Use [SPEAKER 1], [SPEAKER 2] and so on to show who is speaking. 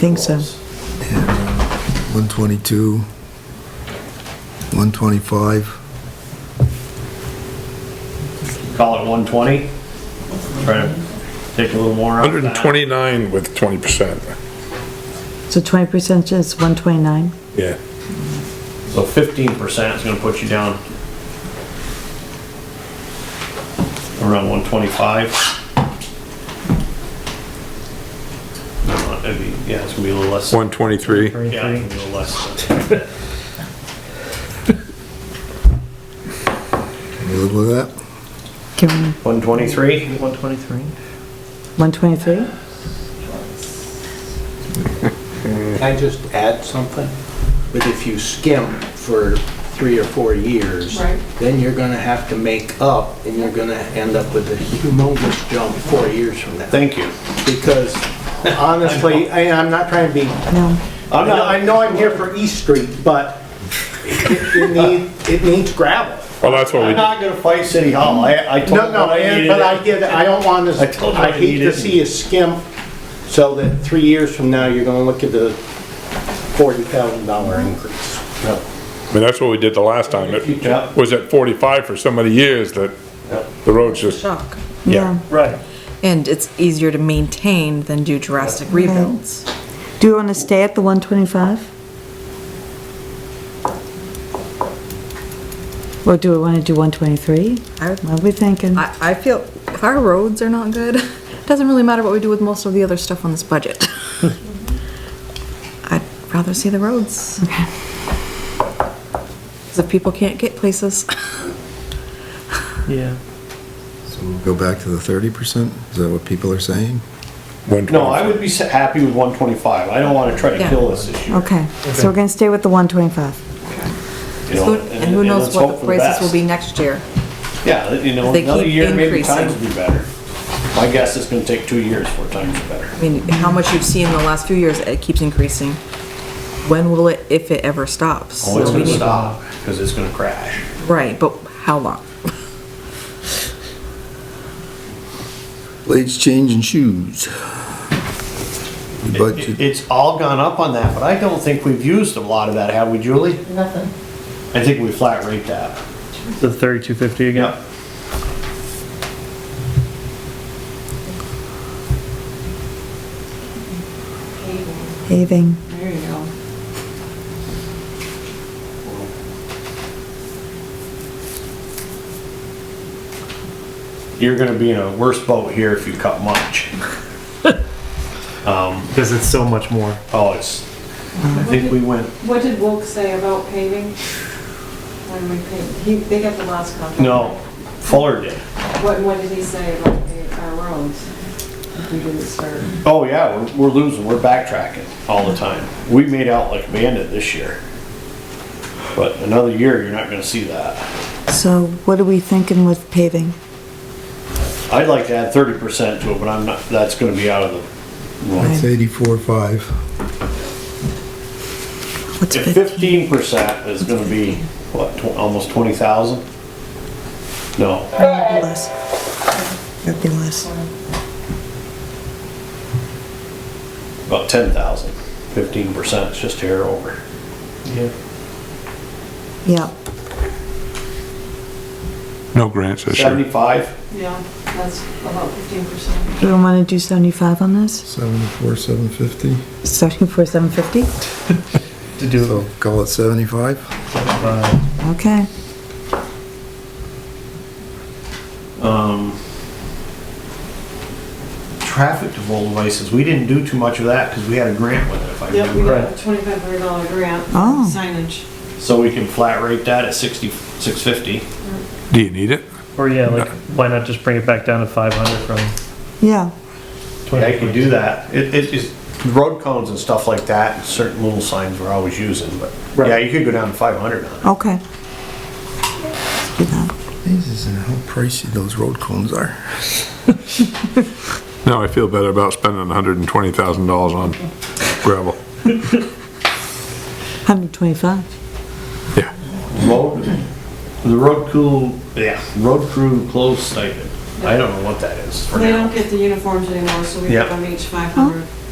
[SPEAKER 1] think so.
[SPEAKER 2] 122, 125.
[SPEAKER 3] Call it 120. Try to take a little more out of that.
[SPEAKER 4] 129 with 20%,
[SPEAKER 1] So 20% is 129.
[SPEAKER 4] yeah.
[SPEAKER 3] So 15% is gonna put you down around 125. No, Uh, It'd be, yeah, it's gonna be a little less.
[SPEAKER 4] 123,
[SPEAKER 3] Yeah, it's gonna be a little less. than-
[SPEAKER 2] Can you live with that?
[SPEAKER 1] Can we,
[SPEAKER 3] 123?
[SPEAKER 5] 123.
[SPEAKER 1] 123?
[SPEAKER 6] Can I just add something? But if you skimp for three or four years,
[SPEAKER 7] Right.
[SPEAKER 6] then you're gonna have to make up, and you're gonna end up with a humongous jump four years from now.
[SPEAKER 3] Thank you.
[SPEAKER 6] Because honestly, I, I'm not trying to be,
[SPEAKER 1] No.
[SPEAKER 6] I know- I know I'm here for East Street, but it, it needs, it needs gravel.
[SPEAKER 4] well, that's what we,
[SPEAKER 3] I'm not gonna fight City Hall. I, I told
[SPEAKER 6] No,
[SPEAKER 3] them
[SPEAKER 6] no,
[SPEAKER 3] what I
[SPEAKER 6] and-
[SPEAKER 3] needed.
[SPEAKER 6] but I get it, I don't want
[SPEAKER 3] I told
[SPEAKER 6] to,
[SPEAKER 3] you
[SPEAKER 6] I
[SPEAKER 3] I
[SPEAKER 6] hate to
[SPEAKER 3] needed-
[SPEAKER 6] see a skimp, so that three years from now, you're gonna look at the forty thousand dollar increase.
[SPEAKER 4] I mean, that's what we did the last time.
[SPEAKER 3] Yeah.
[SPEAKER 4] It was at 45 for so many years that the roads just,
[SPEAKER 8] shock.
[SPEAKER 4] yeah.
[SPEAKER 3] Right.
[SPEAKER 8] And it's easier to maintain than do drastic rebuilds.
[SPEAKER 1] Do you want to stay at the 125? Or do we want to do 123?
[SPEAKER 8] I-
[SPEAKER 1] What are we thinking?
[SPEAKER 8] I, I feel if our roads are not good, it doesn't really matter what we do with most of the other stuff on this budget. I'd rather see the roads. Because if people can't get places,
[SPEAKER 5] Yeah.
[SPEAKER 2] So we'll go back to the 30%? Is that what people are saying?
[SPEAKER 3] No,
[SPEAKER 4] 120.
[SPEAKER 3] I would be s- happy with 125. I don't wanna try to
[SPEAKER 8] Yeah.
[SPEAKER 3] kill this issue.
[SPEAKER 1] Okay, so we're going to stay with the 125.
[SPEAKER 3] you know,
[SPEAKER 8] who- and who knows
[SPEAKER 3] let's
[SPEAKER 8] what
[SPEAKER 3] hope
[SPEAKER 8] the
[SPEAKER 3] for
[SPEAKER 8] prices will
[SPEAKER 3] best.
[SPEAKER 8] be next year.
[SPEAKER 3] Yeah, you know,
[SPEAKER 8] They
[SPEAKER 3] another
[SPEAKER 8] keep
[SPEAKER 3] year, maybe
[SPEAKER 8] increasing.
[SPEAKER 3] times will be better. My guess is gonna take two years for times are better.
[SPEAKER 8] I mean, how much you've seen in the last few years, it keeps increasing. When will it, if it ever stops?
[SPEAKER 3] Oh, it's
[SPEAKER 8] So we
[SPEAKER 3] gonna
[SPEAKER 8] need-
[SPEAKER 3] stop, because it's gonna crash.
[SPEAKER 8] Right, but how long?
[SPEAKER 2] Blades, change, and shoes. We
[SPEAKER 3] It- it-
[SPEAKER 2] budget-
[SPEAKER 3] It's all gone up on that, but I don't think we've used a lot of that, have we, Julie?
[SPEAKER 7] Nothing.
[SPEAKER 3] I think we flat rate that.
[SPEAKER 5] The 3250 again.
[SPEAKER 3] Yep.
[SPEAKER 1] Paving.
[SPEAKER 7] There you go.
[SPEAKER 3] You're gonna be in a worse boat here if you cut much. Um,
[SPEAKER 5] Because it's so much more.
[SPEAKER 3] oh, it's, I think we went,
[SPEAKER 7] What did Wilk say about paving? When we paved, he, they got the last contract.
[SPEAKER 3] no, Fuller did.
[SPEAKER 7] What, what did he say about the, our roads? If we didn't start.
[SPEAKER 3] Oh, yeah, we're, we're losing, we're backtracking all the time. We made out like a bandit this year. But another year, you're not gonna see that.
[SPEAKER 1] So what are we thinking with paving?
[SPEAKER 3] I'd like to add thirty percent to it, but I'm not, that's gonna be out of the.
[SPEAKER 2] That's 84.5.
[SPEAKER 1] What's
[SPEAKER 3] If
[SPEAKER 1] fif-
[SPEAKER 3] fifteen percent is gonna be, what, tw- almost twenty thousand? No,
[SPEAKER 1] That'd be less. That'd be less.
[SPEAKER 3] about ten thousand. Fifteen percent is just hair over.
[SPEAKER 5] Yeah.
[SPEAKER 1] Yeah.
[SPEAKER 4] No grants this year.
[SPEAKER 3] Seventy-five,
[SPEAKER 7] Yeah, that's about fifteen percent.
[SPEAKER 1] Do we want to do 75 on this?
[SPEAKER 2] 74, 750.
[SPEAKER 1] 74, 750?
[SPEAKER 5] To do
[SPEAKER 2] So call it 75?
[SPEAKER 5] uh,
[SPEAKER 1] Okay.
[SPEAKER 3] um. Traffic control devices, we didn't do too much of that, cause we had a grant with it, if I
[SPEAKER 7] Yep, we
[SPEAKER 3] remember.
[SPEAKER 7] got
[SPEAKER 5] Right.
[SPEAKER 7] a twenty-five hundred dollar grant for
[SPEAKER 1] Oh.
[SPEAKER 7] signage.
[SPEAKER 3] So we can flat rate that at sixty, six fifty.
[SPEAKER 4] Do you need it?
[SPEAKER 5] or yeah, like why not just bring it back down to 500 from
[SPEAKER 1] Yeah.
[SPEAKER 3] Yeah, I could do that. It, it is, road cones and stuff like that, certain little signs we're always using, but, yeah, you could go down to five hundred on it.
[SPEAKER 1] Okay. Let's do that.
[SPEAKER 2] Jesus, and how pricey those road cones are.
[SPEAKER 4] Now I feel better about spending $120,000 on gravel.
[SPEAKER 1] 125.
[SPEAKER 4] Yeah.
[SPEAKER 3] Road, the road crew, yeah, road crew closed stipend. I don't know what that is for
[SPEAKER 7] They don't
[SPEAKER 3] now.
[SPEAKER 7] get the uniforms anymore, so we
[SPEAKER 3] Yep.
[SPEAKER 7] give them each five hundred.